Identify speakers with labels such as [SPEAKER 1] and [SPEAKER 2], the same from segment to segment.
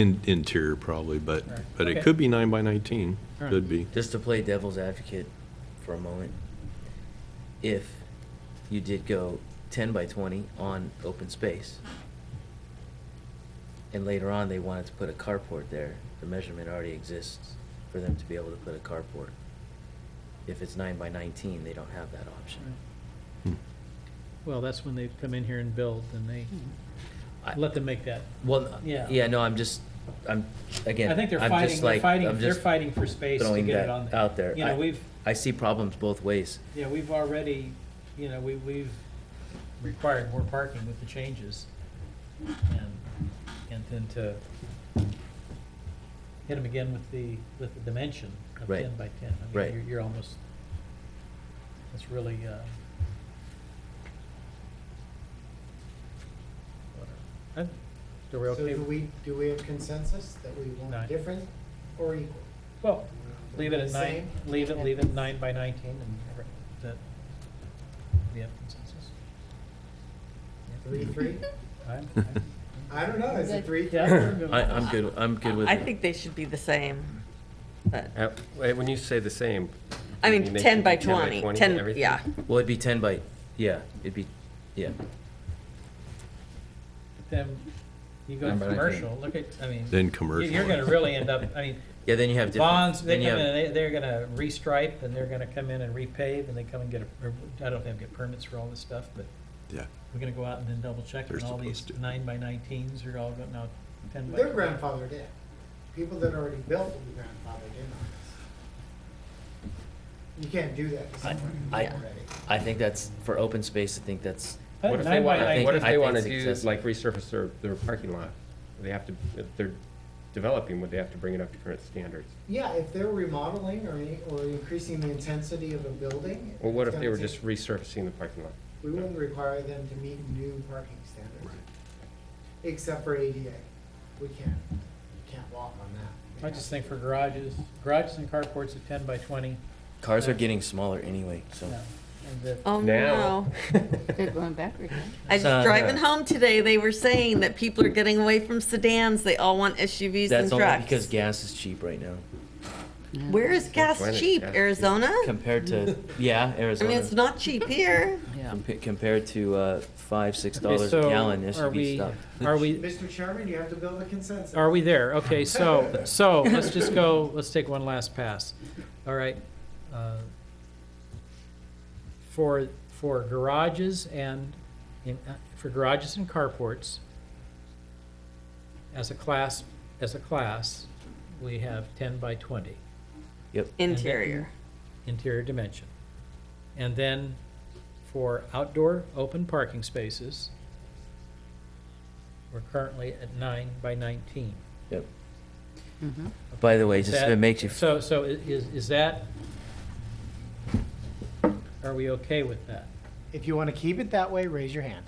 [SPEAKER 1] In- Interior probably, but,
[SPEAKER 2] Right.
[SPEAKER 1] but
[SPEAKER 2] Okay.
[SPEAKER 1] it could be nine by 19,
[SPEAKER 2] All right.
[SPEAKER 1] could be.
[SPEAKER 3] Just to play devil's advocate for a moment, if you did go ten by twenty on open space, and later on they wanted to put a carport there, the measurement already exists for them to be able to put a carport. If it's nine by nineteen, they don't have that option.
[SPEAKER 1] Hmm.
[SPEAKER 2] Well, that's when they come in here and build, and they,
[SPEAKER 3] I-
[SPEAKER 2] let them make that.
[SPEAKER 3] Well,
[SPEAKER 2] Yeah.
[SPEAKER 3] yeah, no, I'm just, I'm, again,
[SPEAKER 2] I
[SPEAKER 3] I'm
[SPEAKER 2] think they're
[SPEAKER 3] just
[SPEAKER 2] fighting, they're
[SPEAKER 3] like,
[SPEAKER 2] fighting,
[SPEAKER 3] I'm
[SPEAKER 2] they're
[SPEAKER 3] just
[SPEAKER 2] fighting for space to
[SPEAKER 3] throwing
[SPEAKER 2] get it
[SPEAKER 3] that
[SPEAKER 2] on there.
[SPEAKER 3] out there.
[SPEAKER 2] You know,
[SPEAKER 3] I-
[SPEAKER 2] we've,
[SPEAKER 3] I see problems both ways.
[SPEAKER 2] yeah, we've already, you know, we, we've required more parking with the changes. And, and then to hit them again with the, with the dimension of
[SPEAKER 3] Right.
[SPEAKER 2] ten by ten. I mean,
[SPEAKER 3] Right.
[SPEAKER 2] You're, you're almost, it's really, uh, whatever. I- Are we
[SPEAKER 4] So
[SPEAKER 2] okay?
[SPEAKER 4] do we, do we have consensus that we
[SPEAKER 2] Nine.
[SPEAKER 4] want different or equal?
[SPEAKER 2] Well, Leave it at nine,
[SPEAKER 4] Same?
[SPEAKER 2] leave it, leave it nine by nineteen and every- that, we have consensus?
[SPEAKER 4] Three, three?
[SPEAKER 2] I'm-
[SPEAKER 4] I don't know, is it three?
[SPEAKER 2] Yeah, we're good.
[SPEAKER 3] I, I'm good, I'm good with
[SPEAKER 5] I
[SPEAKER 3] it.
[SPEAKER 5] think they should be the same. but-
[SPEAKER 6] Uh, wait, When you say the same.
[SPEAKER 5] I
[SPEAKER 6] you
[SPEAKER 5] mean,
[SPEAKER 6] make
[SPEAKER 5] ten
[SPEAKER 6] it
[SPEAKER 5] by
[SPEAKER 6] be
[SPEAKER 5] twenty. Ten.
[SPEAKER 6] and everything?
[SPEAKER 5] yeah.
[SPEAKER 3] Well, it'd be ten by, yeah, it'd be, yeah.
[SPEAKER 2] Then you go to
[SPEAKER 3] Nine by 19.
[SPEAKER 2] commercial, look at, I mean,
[SPEAKER 1] Then
[SPEAKER 2] you-
[SPEAKER 1] commercial.
[SPEAKER 2] you're gonna really end up, I mean,
[SPEAKER 3] Yeah, then you have different.
[SPEAKER 2] bonds, they come
[SPEAKER 3] then you
[SPEAKER 2] in,
[SPEAKER 3] have-
[SPEAKER 2] and they- they're gonna restripe and they're gonna come in and repave and they come and get a, or I don't think they get permits for all this stuff, but
[SPEAKER 1] Yeah,
[SPEAKER 2] we're gonna go out and then double check
[SPEAKER 1] They're
[SPEAKER 2] and all these
[SPEAKER 1] supposed to.
[SPEAKER 2] nine by nineteens are all going, no, ten by.
[SPEAKER 4] They're grandfathered in. People that already built will be grandfathered in on this. You can't do that to
[SPEAKER 3] I-
[SPEAKER 4] someone who's
[SPEAKER 3] I-
[SPEAKER 4] already.
[SPEAKER 3] I think that's, for open space, I think that's,
[SPEAKER 2] I think
[SPEAKER 6] What if they
[SPEAKER 2] nine by
[SPEAKER 6] want,
[SPEAKER 3] I think-
[SPEAKER 6] what if
[SPEAKER 3] I
[SPEAKER 6] they
[SPEAKER 3] think
[SPEAKER 6] want to
[SPEAKER 3] it's
[SPEAKER 6] do,
[SPEAKER 3] excessive.
[SPEAKER 6] like resurface their, their parking lot? They have to, if they're developing, would they have to bring it up to current standards?
[SPEAKER 4] Yeah, if they're remodeling or, any- or increasing the intensity of a building.
[SPEAKER 6] Or what
[SPEAKER 4] it's
[SPEAKER 6] if they were
[SPEAKER 4] gonna
[SPEAKER 6] just
[SPEAKER 4] take-
[SPEAKER 6] resurfacing the parking lot?
[SPEAKER 4] We wouldn't require them to meet new parking standards, except for ADA. We can't, can't walk on that.
[SPEAKER 2] I just think for garages, garages and carports at ten by twenty,
[SPEAKER 3] cars are getting smaller anyway, so.
[SPEAKER 2] no, and the,
[SPEAKER 5] Oh
[SPEAKER 6] Now.
[SPEAKER 5] no!
[SPEAKER 7] They're going backward. huh?
[SPEAKER 5] I was
[SPEAKER 3] Uh,
[SPEAKER 5] driving home today. They were saying that people are getting away from sedans. They all want SUVs
[SPEAKER 3] That's
[SPEAKER 5] and
[SPEAKER 3] only
[SPEAKER 5] trucks.
[SPEAKER 3] because gas is cheap right now,
[SPEAKER 7] Yeah.
[SPEAKER 5] Where is gas
[SPEAKER 6] Why not?
[SPEAKER 5] cheap?
[SPEAKER 6] Gas cheap.
[SPEAKER 5] Arizona?
[SPEAKER 3] compared to, yeah,
[SPEAKER 5] I
[SPEAKER 3] Arizona.
[SPEAKER 5] mean, it's not cheap here.
[SPEAKER 7] Yeah.
[SPEAKER 3] compa- Compared to, uh, five, six
[SPEAKER 2] Okay,
[SPEAKER 3] dollars a
[SPEAKER 2] so
[SPEAKER 3] gallon
[SPEAKER 2] are we-
[SPEAKER 3] SUV stuff.
[SPEAKER 2] Are we,
[SPEAKER 4] Mr. Chairman, you have to build a consensus.
[SPEAKER 2] are we there? Okay, so, so let's just go, let's take one last pass. All right. uh, For, for garages and, in- uh, for garages and carports, as a class, as a class, we have ten by twenty
[SPEAKER 3] Yep,
[SPEAKER 5] Interior.
[SPEAKER 2] interior dimension. And then for outdoor open parking spaces, we're currently at nine by nineteen.
[SPEAKER 3] yep.
[SPEAKER 5] Mm-hmm.
[SPEAKER 3] By the way, just if
[SPEAKER 2] That-
[SPEAKER 3] it makes you, f-
[SPEAKER 2] So, so i- is, is that, are we okay with that?
[SPEAKER 4] If you want to keep it that way, raise your hand.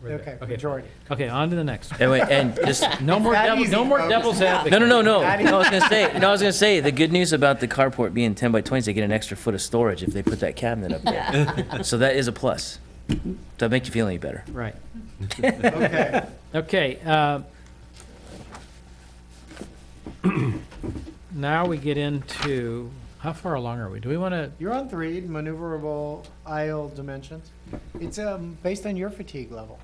[SPEAKER 2] We're
[SPEAKER 4] Okay,
[SPEAKER 2] there.
[SPEAKER 4] majority.
[SPEAKER 2] Okay, on to the next. one.
[SPEAKER 3] anyway, and just,
[SPEAKER 2] No more
[SPEAKER 4] That
[SPEAKER 2] devil,
[SPEAKER 4] easy,
[SPEAKER 2] no more
[SPEAKER 4] folks.
[SPEAKER 2] devil's advocate.
[SPEAKER 3] no, no, no, no,
[SPEAKER 4] That
[SPEAKER 3] no, I was gonna say, no, I was gonna say, the good news about the carport being ten by twenty is they get an extra foot of storage if they put that cabinet up there. So that is a plus. Does that make you feel any better?
[SPEAKER 2] Right.
[SPEAKER 4] Okay.
[SPEAKER 2] Okay. uh, Now we get into, how far along are we? Do we want to,
[SPEAKER 4] You're on three, maneuverable aisle dimensions. It's um, based on your fatigue level.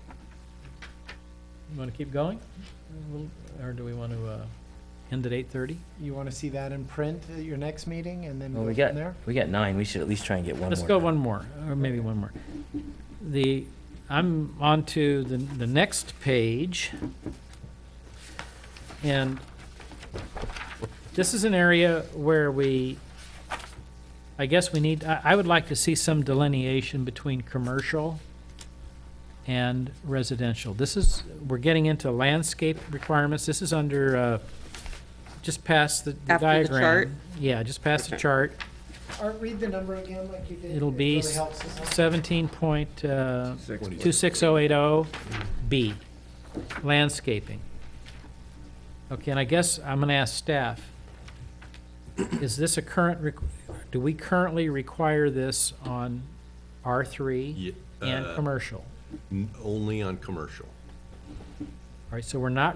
[SPEAKER 2] want to keep going? We'll- Or do we want to end at 8:30?
[SPEAKER 4] You want to see that in print at your next meeting and then
[SPEAKER 3] Well,
[SPEAKER 4] go
[SPEAKER 3] we
[SPEAKER 4] from
[SPEAKER 3] got,
[SPEAKER 4] there?
[SPEAKER 3] we got nine, we should at least try and get one more.
[SPEAKER 2] Let's go one more, or maybe one more. The, I'm on to the, the next page. And this is an area where we, I guess we need, I, I would like to see some delineation between commercial and residential. This is, we're getting into landscape requirements. This is under, uh, just past the the
[SPEAKER 5] After the
[SPEAKER 2] diagram.
[SPEAKER 5] chart?
[SPEAKER 2] Yeah, just past the chart.
[SPEAKER 4] Or read the number again like you did.
[SPEAKER 2] It'll
[SPEAKER 4] It
[SPEAKER 2] be
[SPEAKER 4] really helps us out.
[SPEAKER 2] seventeen point, uh,
[SPEAKER 6] Six.
[SPEAKER 2] two six oh eight oh B, landscaping. Okay, and I guess I'm gonna ask staff, is this a current, requ- do we currently require this on R three
[SPEAKER 1] Ye-
[SPEAKER 2] and
[SPEAKER 1] uh,
[SPEAKER 2] commercial?
[SPEAKER 1] n- Only on commercial.
[SPEAKER 2] All right, so we're not